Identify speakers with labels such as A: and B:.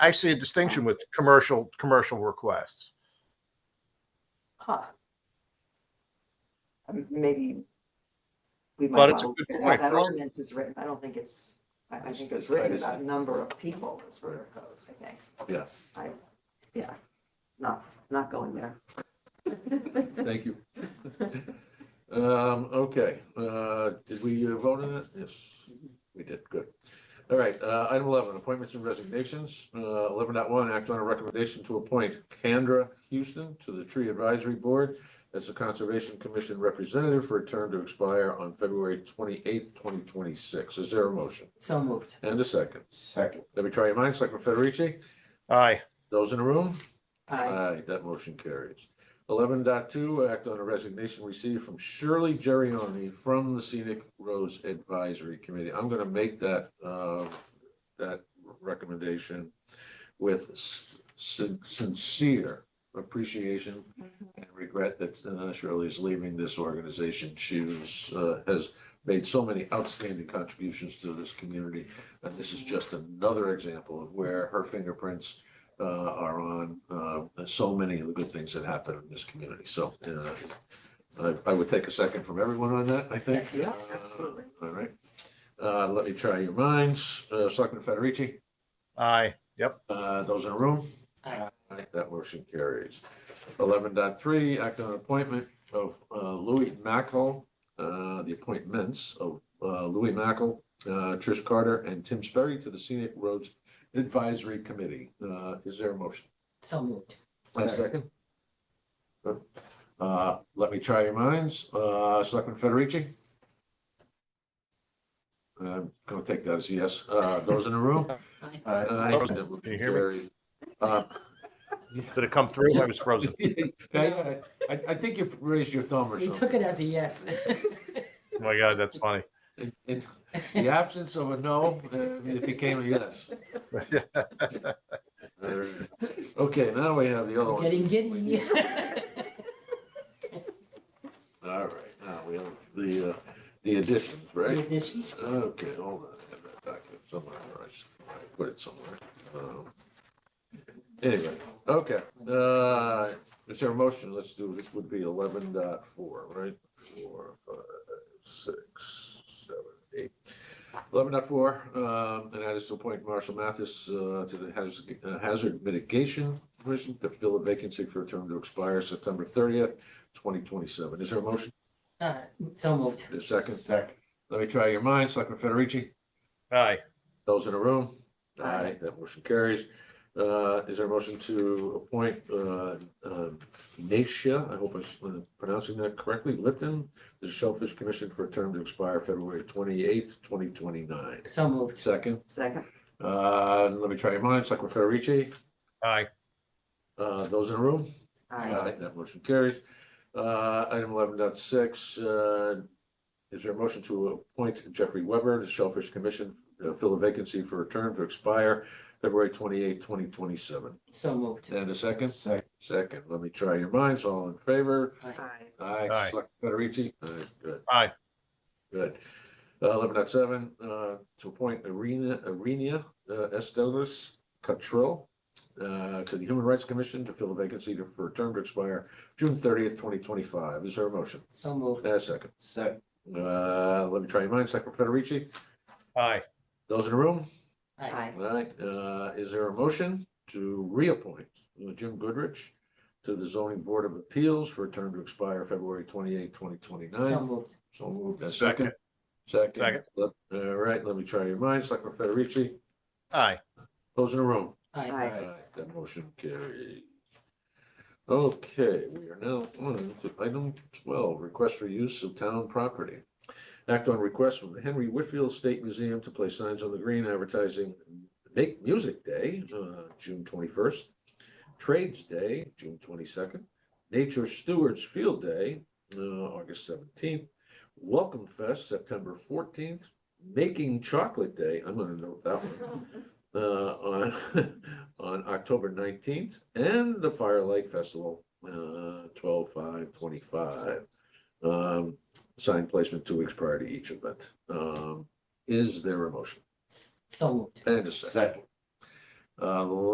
A: I see a distinction with commercial, commercial requests.
B: Huh. Um, Maybe. We
A: But
B: might
A: it's a
B: want
A: good
B: to
A: point.
B: have that ordinance is written, I don't think it's, I, I think it's written about number of people is where it goes, I think.
C: Yeah.
B: I, yeah, not, not going there.
C: Thank you. Um, okay, uh, did we uh, vote on it? Yes, we did, good. All right, uh, item eleven, appointments and resignations, uh, eleven dot one, act on a recommendation to appoint Kendra Houston to the Tree Advisory Board as a Conservation Commission representative for a term to expire on February twenty-eighth, twenty twenty-six. Is there a motion?
D: So moved.
C: And a second.
E: Second.
C: Let me try your minds, Selectman Federici,
A: Aye,
C: those in the room?
D: Aye.
C: Aye, that motion carries. Eleven point two, act on a resignation received from Shirley Gerrioni from the Scenic Rose Advisory Committee. I'm gonna make that, uh, that recommendation with sin- sincere appreciation and regret that uh, Shirley is leaving this organization. She was, uh, has made so many outstanding contributions to this community. And this is just another example of where her fingerprints uh, are on uh, so many of the good things that happen in this community. So uh, I- I would take a second from everyone on that, I think.
B: Yeah,
C: Uh,
B: absolutely.
C: All right. Uh, Let me try your minds. Uh, Selectman Federici,
A: aye, yep,
C: uh, those in the room?
D: Aye.
C: Aye, That motion carries. Eleven point three, act on appointment of uh, Louis Mackel, uh, the appointments of uh, Louis Mackel, uh, Trish Carter, and Tim Sperry to the Scenic Roads Advisory Committee. Uh, Is there a motion?
D: So moved.
C: A second. Uh, let me try your minds. Uh, Selectman Federici? I'm gonna take that as a yes. Uh, those in the room?
D: Aye.
C: Aye. Uh, That motion
A: Can you hear
C: carried. Uh,
A: did it come through? I was frozen.
C: I, I- I think you raised your thumb or
D: He took
C: something.
D: it as a yes.
A: Oh my God, that's funny.
C: In- In the absence of a no, uh, it became a yes. Okay, now we have the other one.
D: Getting giddy.
C: All right, now we have the, uh, the additions, right?
D: Additions?
C: Okay, hold on, I have that document somewhere, or I should I put it somewhere. Um, Anyway, okay, uh, is there a motion? Let's do, this would be eleven dot four, right? Four, five, six, seven, eight. Eleven dot four, um, and that is to appoint Marshall Mathis, uh, to the Haz- uh, Hazard Mitigation Commission to fill a vacancy for a term to expire September thirtieth, twenty twenty-seven. Is there a motion?
D: Uh, So moved.
C: A second?
E: Second.
C: Let me try your minds, Selectman Federici?
A: Aye,
C: Those in the room?
B: Aye.
C: That motion carries. Uh, is there a motion to appoint, uh, uh, Nacia, I hope I'm s- uh, pronouncing that correctly, Lipton, the Shellfish Commission for a term to expire February twenty-eighth, twenty twenty-nine.
D: So moved.
C: Second,
B: Second,
C: uh, let me try your minds, Selectman Federici,
A: aye,
C: uh, those in the room?
B: aye,
C: Aye, that motion carries. Uh, item eleven dot six, uh, is there a motion to appoint Jeffrey Weber to Shellfish Commission, uh, fill a vacancy for a term to expire February twenty-eighth, twenty twenty-seven?
D: So moved.
C: And a second?
E: Second.
C: Second, let me try your minds, all in favor?
B: aye,
C: Aye,
A: Aye.
C: Select Federici? Aye, good.
A: Aye.
C: Good. Uh, eleven dot seven, uh, to appoint Arena, Arena, uh, Estelis Cottrell, uh, to the Human Rights Commission to fill a vacancy to- for a term to expire June thirtieth, twenty twenty-five. Is there a motion?
D: So moved.
C: And a second.
E: Second.
C: Uh, let me try your minds, Secretary Federici.
A: aye,
C: Those in the room?
B: aye,
C: Aye. Uh, is there a motion to reappoint Jim Goodrich to the zoning board of appeals for a term to expire February twenty-eighth, twenty
D: So
C: twenty-nine?
D: moved.
C: So moved. And second? Second.
A: Second.
C: Let- All right, let me try your minds, Secretary Federici.
A: aye,
C: Those in the room?
D: Aye.
B: aye,
C: Aye, That motion carries. Okay, we are now on to item twelve, request for use of town property. Act on request from the Henry Whitfield State Museum to place signs on the green advertising Make Music Day, uh, June twenty-first, Trades Day, June twenty-second, Nature Stewards Field Day, uh, August seventeenth, Welcome Fest, September fourteenth, Making Chocolate Day, I'm gonna note that one uh, on, on October nineteenth, and the Firelight Festival, uh, twelve, five, twenty-five. Um, sign placement two weeks prior to each event. Um, is there a motion?
D: S- So moved.
C: And a
E: Second.
C: second. Uh,